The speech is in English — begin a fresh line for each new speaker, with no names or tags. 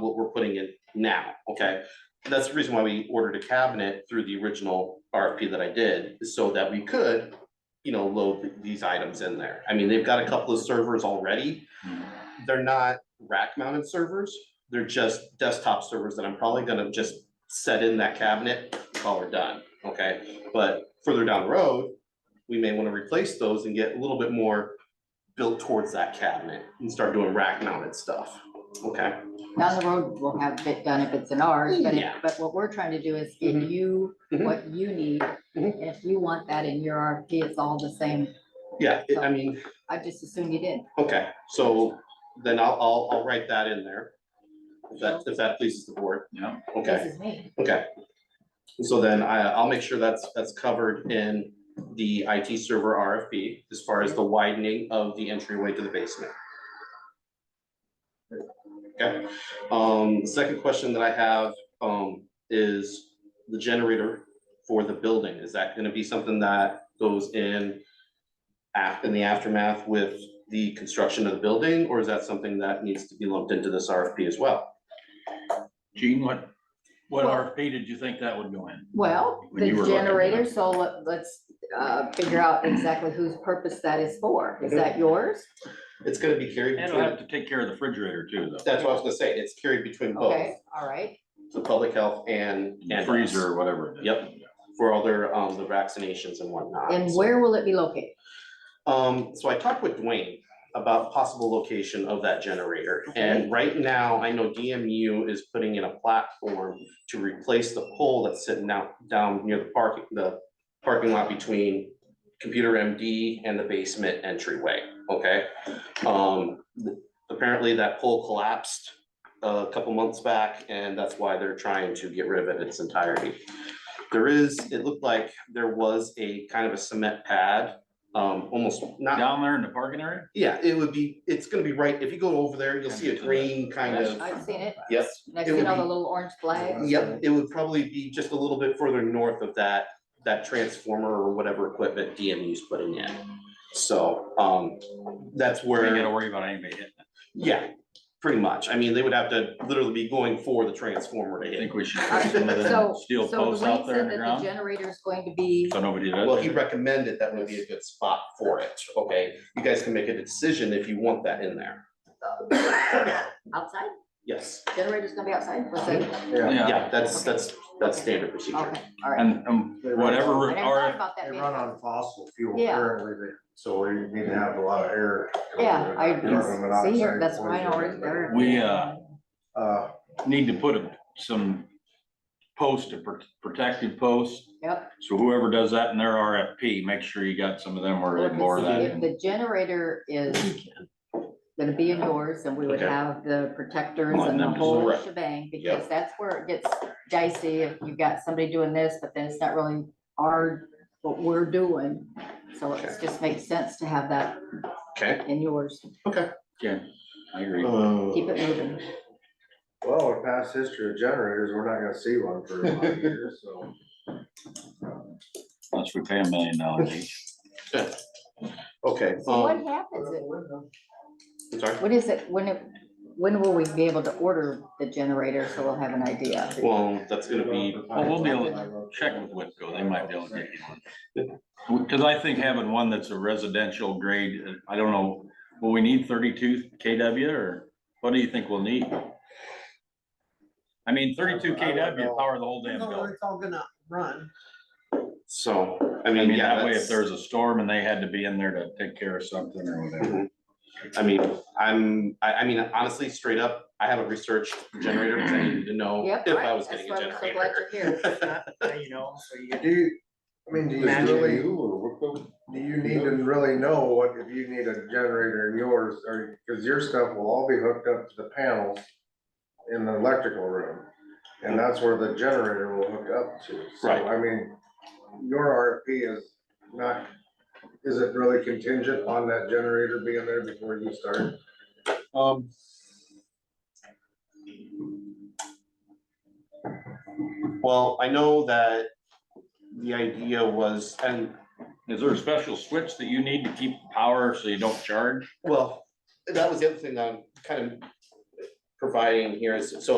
what we're putting in now, okay? That's the reason why we ordered a cabinet through the original RFP that I did, is so that we could, you know, load th- these items in there. I mean, they've got a couple of servers already. They're not rack mounted servers, they're just desktop servers that I'm probably gonna just set in that cabinet while we're done, okay? But further down the road, we may wanna replace those and get a little bit more built towards that cabinet and start doing rack mounted stuff, okay?
Down the road, we'll have it done if it's in ours, but, if-
Yeah.
but what we're trying to do is give
Mm-hmm.
Mhm.
you
Mhm.
what you need.
Mhm.
And if you want that in your RFP, it's all the same.
Yeah, it- I mean,
I just assumed you did.
okay, so then I'll, I'll, I'll write that in there. If that, if that pleases the board.
Yeah.
Okay,
This is me.
okay. So then I, I'll make sure that's, that's covered in the IT server RFP as far as the widening of the entryway to the basement. Okay, um, second question that I have, um, is the generator for the building. Is that gonna be something that goes in af, in the aftermath with the construction of the building, or is that something that needs to be lumped into this RFP as well?
Gene, what, what
Well-
RFP did you think that would go in?
Well,
When
the
you were looking at
generator,
it.
so let- let's uh, figure out exactly whose purpose that is for. Is
Mm-hmm.
Mhm.
that yours?
It's gonna be carried
And it'll
between
have to take care of the refrigerator too, though.
That's what I was gonna say, it's carried between both,
Okay, all right.
the public health and.
And
and us
Freezer or whatever. it is.
Yep. For all their, um, the vaccinations and whatnot.
And
so-
where will it be located?
Um, so I talked with Dwayne about possible location of that generator, and right now, I know DMU is putting in a platform to replace the pole that's sitting out down near the parking, the parking lot between computer MD and the basement entryway, okay? Um, apparently that pole collapsed a couple months back, and that's why they're trying to get rid of it in its entirety. There is, it looked like there was a kind of a cement pad, um, almost not
Down there in the parking area?
yeah, it would be, it's gonna be right, if you go over there, you'll see a green kind of,
I've seen it.
yep.
And I've
It would
seen all the
be-
little orange flags.
Yep, it would probably be just a little bit further north of that, that transformer or whatever equipment DMU's putting in. So, um, that's
We ain't
where.
gotta worry about anybody hitting it.
Yeah, pretty much. I mean, they would have to literally be going for the transformer to
I
hit. it.
think we should
All
put
right,
some of
So,
the
so
steel posts
Dwayne
out there
said
in the
that the
ground.
generator is going to be,
So nobody does.
Well, he
it.
recommended that would be a good spot for it, okay? You guys can make a decision if you want that in there.
outside?
Yes,
Generator's gonna be outside? What's that?
Yeah,
yeah, that's, that's, that's standard procedure.
Okay, all right.
and, and whatever
I never thought
RF,
about that.
They
being
run on fossil fuel
Yeah.
currently, but- so we need to have a lot of air.
Yeah, I
Carbon
can see here,
monoxide
that's why I already
poisoning.
there.
we, uh,
Uh,
need to put a- some posts, a pr- protective posts.
Yep.
So whoever does that in their RFP, make sure you got some of them or
Let me
more of
see,
that.
If
in.
the generator is gonna be indoors, then we would
Okay.
have the protectors
Want
and the
them to
whole
direct.
shebang,
Yeah.
because that's where it gets dicey if you've got somebody doing this, but then it's not really our, what we're doing. So it
Okay.
just makes sense to have that
Okay.
in yours,
Yeah, I agree.
keep it moving.
well, with past history of generators, we're not gonna see one for a lot of years, so.
Unless we pay a million dollars each.
Okay,
So what
um,
happens, if-
I'm sorry.
what is it, when, it- when will we be able to order the generator, so we'll have an idea?
Well, that's gonna be,
Well, we'll be able to check with Whitco, they might be able to get you one. Cause I think having one that's a residential grade, uh, I don't know, will we need thirty-two KW or what do you think we'll need? I mean, thirty-two
I don't know.
KW power the whole damn
No,
building.
it's all gonna run.
so, I
I
mean,
mean,
yeah,
that way
that's-
if there's a storm and they had to be in there to take care of something or whatever.
I mean, I'm, I, I mean, honestly, straight up, I haven't researched generator, because I needed to know
Yep.
if I
right,
was
that's
getting
why
a
I'm so glad
generator.
you're here.
Uh, You know, so you
Do you, I mean, do you really, do
Well,
you need to really know what, if you need a generator in yours, or, cause your stuff will all be hooked up to the panels in the electrical room, and that's where the generator will hook up to. So,
Right.
I mean, your RFP is not, is it really contingent on that generator being there before you start?
Um.
Well, I know that the idea was, and,
Is there a special switch that you need to keep power so you don't charge?
well, that was the other thing that I'm kind of providing here is, so